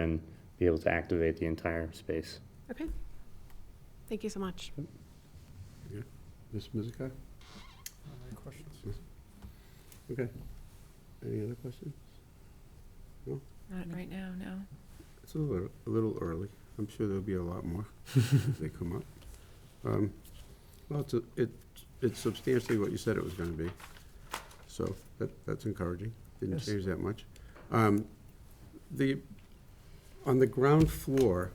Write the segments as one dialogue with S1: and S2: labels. S1: and be able to activate the entire space.
S2: Okay. Thank you so much.
S3: Ms. Mizuka?
S4: Any questions?
S3: Okay. Any other questions?
S5: Not right now, no.
S3: It's a little, a little early. I'm sure there'll be a lot more if they come up. Um, Well, it's, a- it, it's substantially what you said it was gonna be. So that, that's encouraging. Didn't
S4: Yes.
S3: change that much. Um, The, on the ground floor,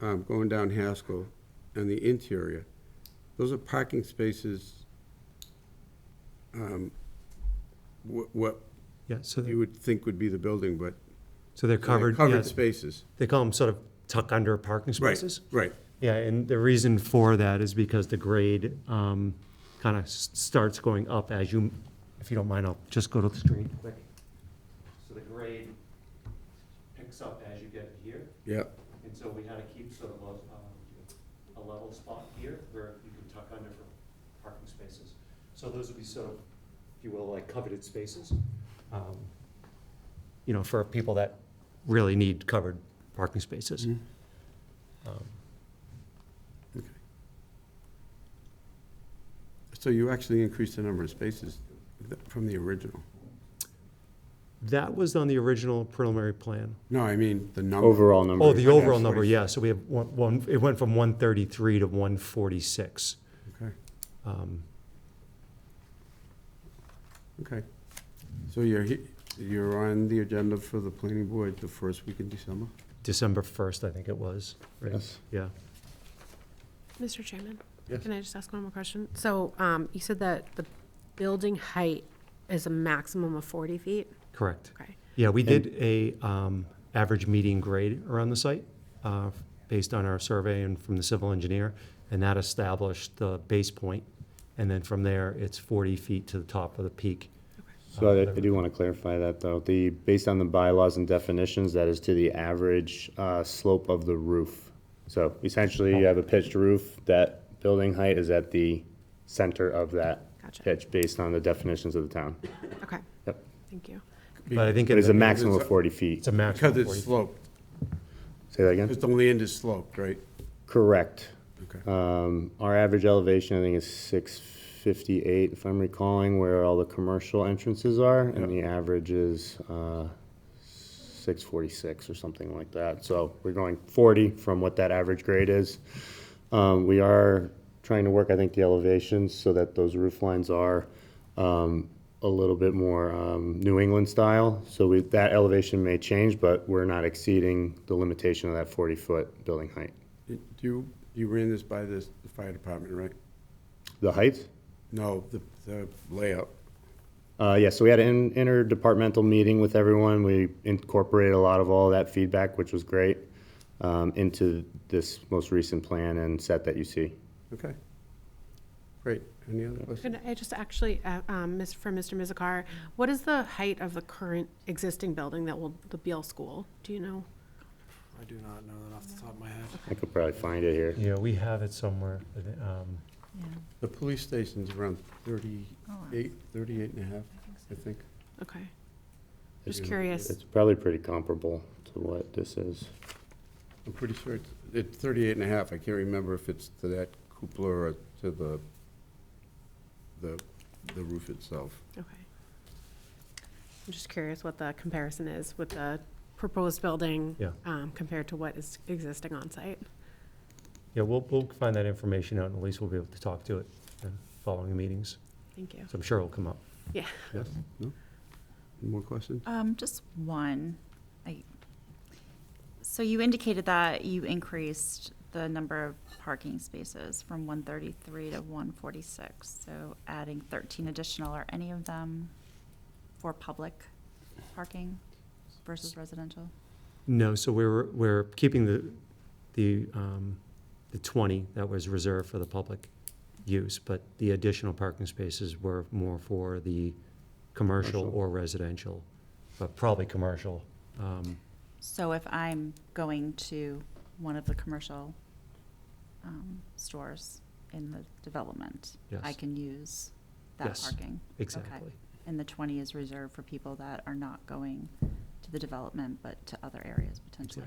S3: um, going down Haskell and the interior, those are parking spaces, um, wh- what
S6: Yeah, so,
S3: you
S6: they're-
S3: would think would be the building, but So
S6: so they're
S3: they're
S6: covered, yeah,
S3: Covered spaces.
S6: they call them sort of tuck under parking
S3: Right,
S6: spaces.
S3: Right,
S6: Yeah, and the reason for that is because the grade um, kind of starts going up as you, if you don't mind, I'll just go to the screen quick. So the grade picks up as you get here,
S3: yeah,
S6: and so we had to keep sort of a, um, a level spot here where you can tuck under for parking spaces. So those would be sort of, if you will, like coveted spaces, um, you know, for people that really need covered parking spaces.
S3: Mhm.
S6: Um,
S3: okay. So you actually increased the number of spaces th- from the original?
S6: That was on the original preliminary plan.
S3: No, I mean, the number.
S1: Overall number.
S6: Oh, the
S3: Right now,
S6: overall number,
S3: 40.
S6: yeah, so we have one, one, it went from one thirty-three to one forty-six.
S3: Okay,
S6: Um,
S3: okay. So you're, he- you're on the agenda for the planning board the first week in December?
S6: December first, I think it was, right? Yeah.
S2: Mr. Chairman?
S3: Yes.
S2: Can I just ask one more question? So um, you said that the building height is a maximum of 40 feet?
S6: Correct.
S2: Okay.
S6: Yeah, we did a um, average median grade around the site uh, based on our survey and from the civil engineer, and that established the base point. And then from there, it's 40 feet to the top of the peak.
S1: So I, I do want to clarify that though. The, based on the bylaws and definitions, that is to the average, uh, slope of the roof. So essentially you have a pitched roof, that building height is at the center of that
S2: Gotcha.
S1: pitch based on the definitions of the town.
S2: Okay.
S1: Yep.
S2: Thank you.
S6: But I think
S1: It is a
S6: in the-
S1: maximum of forty feet.
S6: It's a maximum.
S3: Because
S6: of 40
S3: it's sloped,
S1: Say that again?
S3: because the land is sloped, right?
S1: Correct.
S3: Okay.
S1: Um, our average elevation, I think, is six fifty-eight, if I'm recalling, where all the commercial entrances are, and the average is, uh, six forty-six or something like that. So we're going forty from what that average grade is. Um, we are trying to work, I think, the elevations so that those roof lines are, um, a little bit more, um, New England style. So we, that elevation may change, but we're not exceeding the limitation of that forty-foot building height.
S3: Did You, you ran this by this- the fire department, right?
S1: The height?
S3: No, the, the layout.
S1: Uh, yeah, so we had an interdepartmental meeting with everyone. We incorporated a lot of all that feedback, which was great, um, into this most recent plan and set that you see.
S3: Okay. Great. Any other questions?
S2: Could I just actually, uh, um, Miss- for Mr. Mizikar, what is the height of the current existing building that will, the Beal School? Do you know?
S4: I do not know that off the top of my head.
S1: I could probably find it here.
S6: Yeah, we have it somewhere. um,
S5: Yeah,
S3: The police station's around 38, 38 and a half, I think.
S2: Okay. Just
S3: Yeah.
S2: curious.
S1: It's probably pretty comparable to what this is.
S3: I'm pretty sure it's, it's 38 and a half. I can't remember if it's to that cupola or to the, the, the roof itself.
S2: Okay. I'm just curious what the comparison is with the proposed building
S6: Yeah.
S2: um, compared to what is existing on site.
S6: Yeah, we'll, we'll find that information out, and at least we'll be able to talk to it in following meetings.
S2: Thank you.
S6: So I'm sure it'll come up.
S2: Yeah.
S3: Yes? No? More questions?
S5: Um, just one. I, so you indicated that you increased the number of parking spaces from one thirty-three to one forty-six, so adding thirteen additional, are any of them for public parking versus residential?
S6: No, so we're, we're keeping the, the, um, the twenty that was reserved for the public use, but the additional parking spaces were more for the commercial
S1: Commercial.
S6: or residential, but probably commercial. Um,
S5: So if I'm going to one of the commercial, um, stores in the development, I
S6: Yes.
S5: can use that
S6: Yes.
S5: parking?
S6: Exactly.
S5: And the 20 is reserved for people that are not going to the development, but to other areas potentially.